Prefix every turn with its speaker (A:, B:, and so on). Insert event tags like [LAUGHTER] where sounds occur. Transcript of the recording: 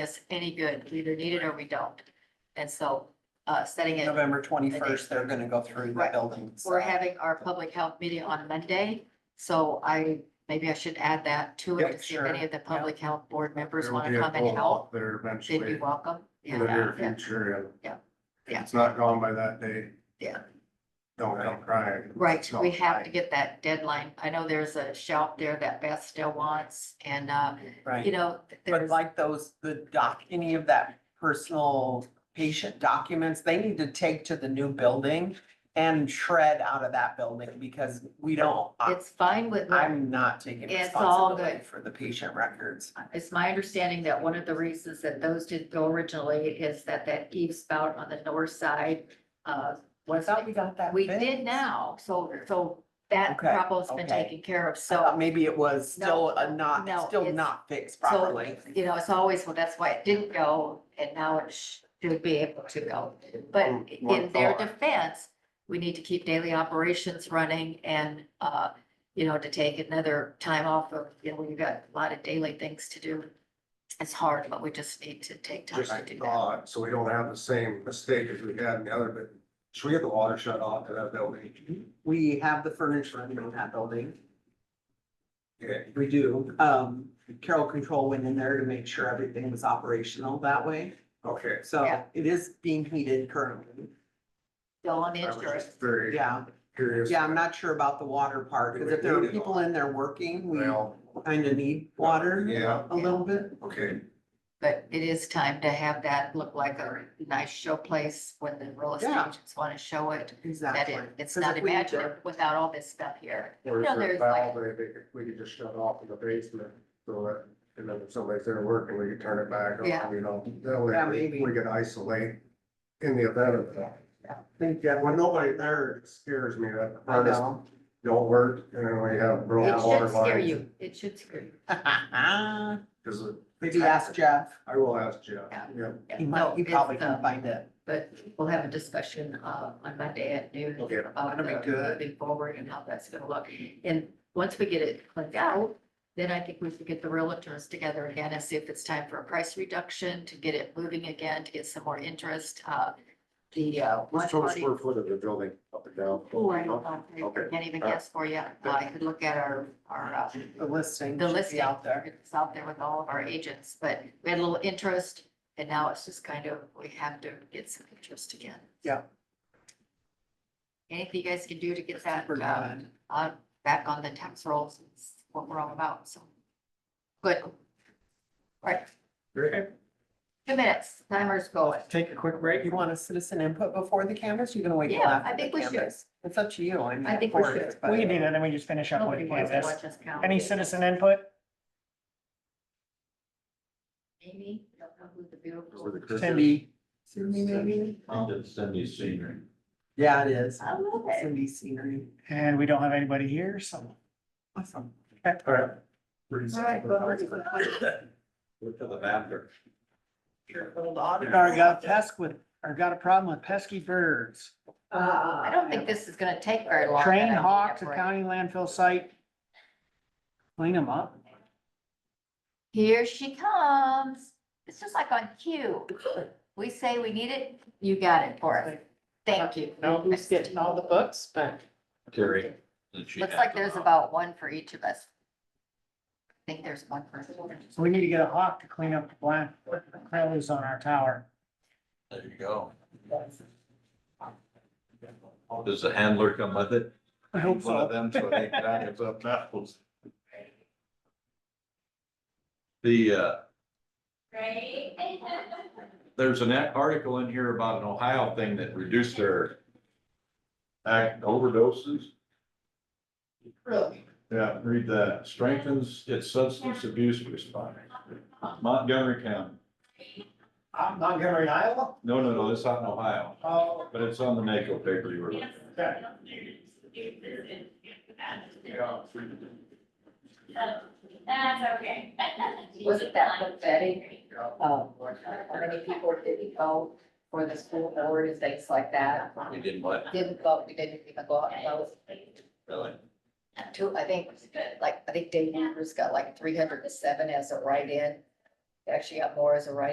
A: us any good. We either need it or we don't. And so, uh, setting it,
B: November twenty-first, they're gonna go through the
A: Right.
B: building. so-
A: we're having our public health meeting on Monday. So I, maybe I should add that to it,
B: Yep,
A: to see if any
B: sure.
A: of the public health board members
C: There will
A: want
C: be
A: to
C: a
A: come and help.
C: co-op There
A: They'd be
C: eventually,
A: welcome.
C: in the near
A: Yeah, yeah,
C: future, and.
A: Yeah.
C: if
A: Yeah.
C: It's not gone by that day.
A: Yeah.
C: Don't come crying.
A: Right,
C: It's not
A: we have
C: right.
A: to get that deadline. I know there's a shelf there that Beth still wants and, uh, you
B: Right,
A: know, th-
B: but
A: there's,
B: like those, the doc, any of that personal patient documents, they need to take to the new building and shred out of that building because we don't, I-
A: it's fine with.
B: I'm not taking
A: It's all
B: responsibility
A: good.
B: for the patient records.
A: It's my understanding that one of the reasons that those didn't go originally is that that eave spout on the north side, uh,
B: I
A: was,
B: thought we got that.
A: we
B: fixed.
A: did now, so, so that
B: Okay,
A: problem's been
B: okay.
A: taken care of,
B: I thought
A: so.
B: maybe it was
A: No,
B: still a
A: no,
B: not,
A: no,
B: still
A: it's-
B: not fixed
A: So,
B: properly.
A: you know, it's always, well, that's why it didn't go, and now it sh- should be able to go. But
C: Mm, One
A: in their
C: thought.
A: defense, we need to keep daily operations running and, uh, you know, to take another time off of, you know, when you've got a lot of daily things to do. It's hard, but we just need to take time
C: Just
A: to do that.
C: thought, so we don't have the same mistake as we had in the other, but should we get the water shut off to that building?
A: Mm-hmm.
B: We have the furniture in that building.
C: Yeah,
B: We do. Um, Carol Control went in there to make sure everything was operational that way.
C: okay.
B: So
A: Yeah.
B: it is being heated currently.
A: Still on
C: I was
A: insurance.
C: just very
B: Yeah,
C: curious.
B: yeah, I'm not sure about the water part, because if there are people in there working, we
C: Well,
B: kind of need water
C: yeah,
B: a little bit.
C: okay,
A: But it is time to have that look like a nice showplace when the real estate
B: Yeah.
A: agents want to show it. That
B: Exactly.
A: it, it's
B: 'Cause
A: not
B: if we-
A: imaginative without all this stuff here.
C: or if
A: No,
C: there's
A: there's
C: valve, they, they could, we could just shut off in the basement, so that, and then if somebody's there working, we could turn it back
A: Yeah.
C: on, you know? That way
B: Yeah,
C: we-
B: maybe.
C: We could isolate in the event of that.
B: Yeah.
C: Think, yeah, when nobody there it scares me, that the
B: I
C: furnace
B: know.
C: don't work, and then we have broken
A: It
C: water
A: should scare
C: lines.
A: you. It should scare you.
C: Cause it-
B: [LAUGHS] Maybe ask Jeff.
C: I will ask Jeff,
A: Yeah.
C: yeah,
A: Yeah,
B: He
A: no,
B: might, he
A: it's,
B: probably
A: uh,
B: can find it.
A: But we'll have a discussion, uh, on Monday at noon
C: Okay,
A: about
B: that'll be
A: the
B: good.
A: moving forward and how that's gonna look. And once we get it cleaned out, then I think we should get the realtors together again and see if it's time for a price reduction to get it moving again, to get some more interest, uh, the, uh. one
C: what's total
A: party-
C: square foot of the building up and down?
A: Oh, I don't know.
C: Okay.
A: I can't even
C: All right.
A: guess for you. I could look at our, our, uh,
B: The listing
A: the
B: should
A: listing.
B: be out there.
A: It's out there with all of our agents, but we had a little interest and now it's just kind of, we have to get some interest again.
B: Yeah.
A: Anything you guys can do to get that,
B: Super
A: uh,
B: good.
A: uh, back on the tax rolls is what we're all about, so. Good. All right,
C: Great.
A: two minutes, timer's going.
B: Take a quick break. You want a citizen input before the canvas? You're gonna wait till
A: Yeah,
B: after
A: I
B: the
A: think we should.
B: canvas? It's up to you. I mean.
A: I think we
B: for it,
A: should.
B: but-
D: We can do that, then we just finish up with
A: Nobody wants to
D: this.
A: watch us count.
D: Any citizen input?
A: Amy, I don't know who the
C: So
A: beautiful.
C: the Christmas-
B: Cindy. Cindy, maybe?
E: I think that's Cindy's scenery.
B: Yeah, it is.
A: I love it.
B: Cindy scenery.
D: And we don't have anybody here, so.
B: Awesome.
C: All right. Pretty
A: All right, well,
C: simple.
E: Look to the bathroom.
B: Your old auditor.
D: Or got a pest with, or got a problem with pesky birds.
A: Uh, I don't think this is gonna take very long.
D: Train
A: but I need
D: hawk
A: a
D: to
A: break.
D: county landfill site. Clean them up.
A: Here she comes. It's just like on cue. We say we need it, you got it for us. Thank you.
F: Now who's getting all the books back?
E: Terry. that she
A: Looks
E: had
A: like
E: to
A: there's
E: knock.
A: about one for each of us. I think there's one person.
D: So we need to get a hawk to clean up the black crows on our tower.
E: There you go. Does the handler come with it?
D: I hope
E: One
D: so.
E: of them, so they can add it up apples. The, uh, there's an article in here about an Ohio thing that reduced their act overdoses.
F: Really?
E: Yeah, read that. Strengthens its substance abuse response. Montgomery County.
F: I'm Montgomery, Iowa?
E: No, no, no, it's out in Ohio,
F: Oh,
E: but it's on the NACO paper you were. looking at.
F: okay.
G: That's okay.
A: Wasn't that pathetic? Um, how many people didn't go for the school board and things like that?
E: We didn't what?
A: Didn't vote, we didn't even go out and vote.
E: Really?
A: Two, I think, like, I think Dave Hoover's got like three hundred and seven as a write-in. Actually got more as a write-in